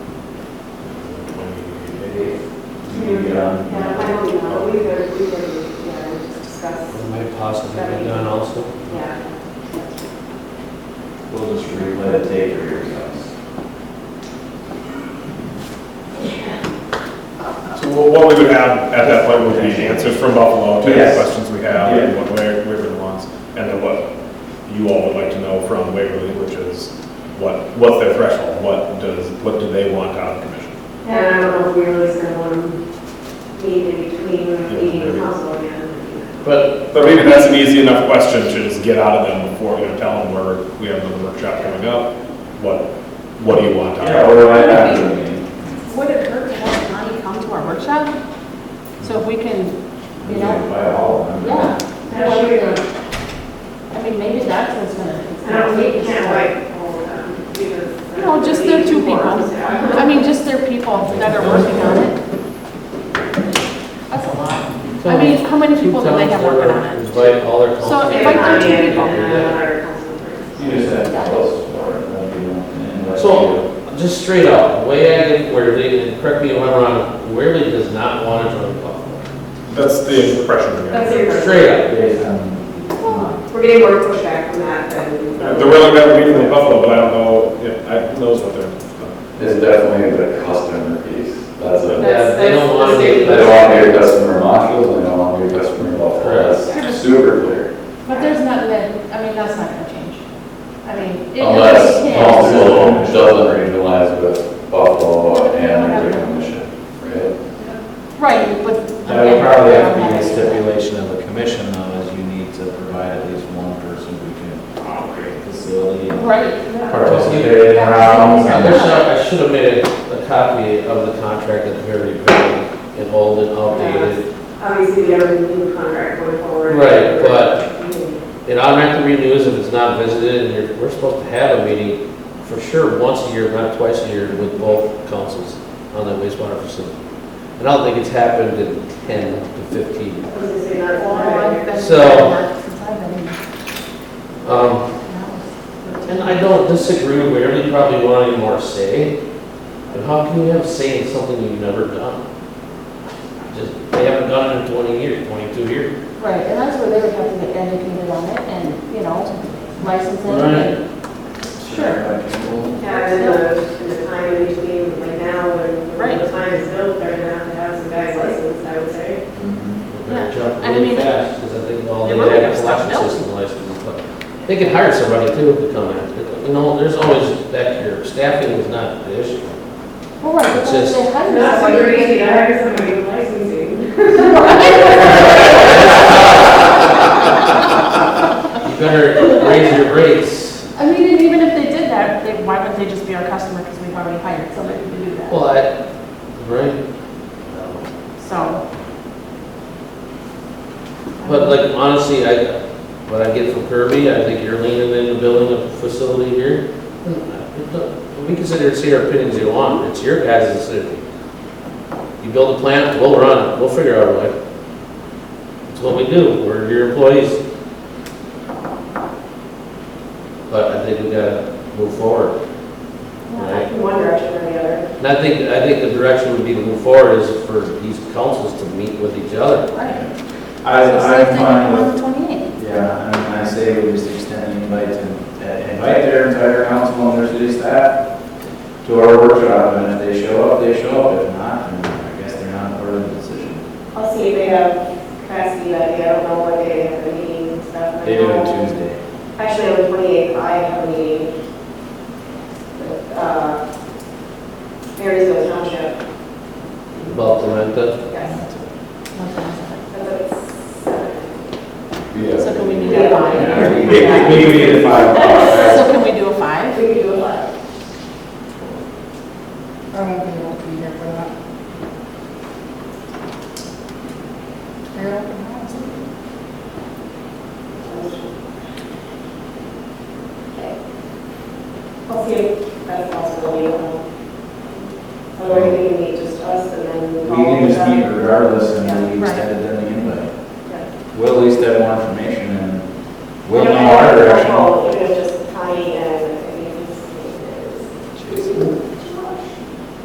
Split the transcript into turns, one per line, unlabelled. we get on.
Yeah, I know, we know, but we were, we were, yeah, we just discussed,
It might possibly be done also.
yeah.
We'll just replay the tape for your guys.
So what- what we would have at that point would be answers from Buffalo to the
Yes.
questions we have
Yeah.
and what Wa- Waverly wants. And then what you all would like to know from Waverly, which is what, what's their threshold? What does, what do they want out of the commission?
And I don't know if we really spent one meeting in between, meeting and council again.
But, but maybe that's an easy enough question to just get out of them before we tell them where we have another workshop coming up. What, what do you want out
Yeah,
of
what
it?
do I have to mean?
Would it hurt to have Connie come to our workshop? So if we can, you know,
By all of them.
yeah,
I don't know,
I mean, maybe that's what's gonna.
I don't, we can't wait all of them, because.
You know, just their two people.
Yeah.
I mean, just their people that are working on it. That's a lot. I mean, how many people do they have working on it?
Invite all their
So
council.
if I
Yeah,
could-
yeah, yeah, our council members.
You just have to close the door and let people in and let people-
So, just straight up, the way I get Waverly, and correct me if I'm wrong, Waverly does not want to join Buffalo.
That's the impression we
That's
get.
it.
Straight up.
Based on-
We're getting more pushback from that than.
Uh,
They're willing to have a meeting in Buffalo, but I don't know, yeah, I, who knows what they're,
It's definitely the customer piece. That's it.
Yeah, they don't want to
They
get
don't want to be a customer of Montrose, and they don't want to be a customer of Buffalo.
Correct.
That's super clear.
But there's not that, I mean, that's not gonna change. I mean. it-
Unless
it can.
council doesn't regionalize with Buffalo and the commission, right?
Right, but.
That would probably have to be a
Okay.
stipulation of the commission though, is you need to provide at least one person who can
Oh,
operate the facility. and
Right.
Participate in rounds.
I
and-
wish I, I should have made a, a copy of the contract that Waverly paid, and old and outdated.
Obviously, we have a new contract going forward.
Right, but- It automatically renews if it's not visited, and you're, we're supposed to have a meeting for sure once a year, not twice a year, with both councils on that wastewater facility. And I don't think it's happened in ten to fifteen.
I was gonna say, not
Well, I've been-
So-
Since I've been in the
Um,
house.
And I don't disagree with where you probably want any more say, but how can you have say in something you've never done? Just, they haven't done it in twenty years, twenty-two years.
Right, and that's where they would have to get educated on it and, you know, licensing and, sure.
Yeah, and then the, and the time in between, like now, when when the
Right.
time is built, they're gonna have to have some guys licensed, I would say.
They're jumping
and I
really
mean-
fast, because I think all
They
they
might
have
have
is
stuff
collection
else.
system licenses, but they could hire somebody too to come in. You know, there's always that, your staffing is not the issue.
Well, right, but
It's
then
just-
they hire
That's
somebody.
what you're gonna hire somebody with licensing.
You better raise your rates.
I mean, and even if they did that, they, why wouldn't they just be our customer because we've already hired somebody to do that?
Well, I, right?
So.
But like honestly, I, what I get from Kirby, I think you're leaning into building a facility here. We consider it's your opinions you want, it's your guys' decision. You build a plant, we'll run it, we'll figure out a way. It's what we do, we're your employees. But I think we gotta move forward. Right?
In one direction or the other.
And I think, I think the direction would be to move forward is for these councils to meet with each other.
Right.
I,
So
I'm
same thing
fine with
on the twenty-eighth.
Yeah, and I say we just extend the invite to, uh, invite their entire council and their city staff to our workshop, and if they show up, they show up, if not, then I guess they're not part of the decision.
I'll see if they have capacity, like, I don't know what day they have a meeting and stuff.
They do it Tuesday.
Actually, on the twenty-eighth, I have a meeting with, uh, Marysville Township,
About the rent, uh,
yes, that's at seven.
So can we do
Yeah.
that five?
We, we need to find out.
So can we do a five?
We could do a lot.
I won't be able to be here for that. You're open house.
Okay. I'll see if that's possible, you know. Or we can meet just us and then.
We
all
can just
of
meet
them.
regardless, and we
Yeah, right.
extend it then the invite.
Yeah.
We'll at least have more information, and we'll
We don't
know our
have to
direction.
control, Even if just Connie and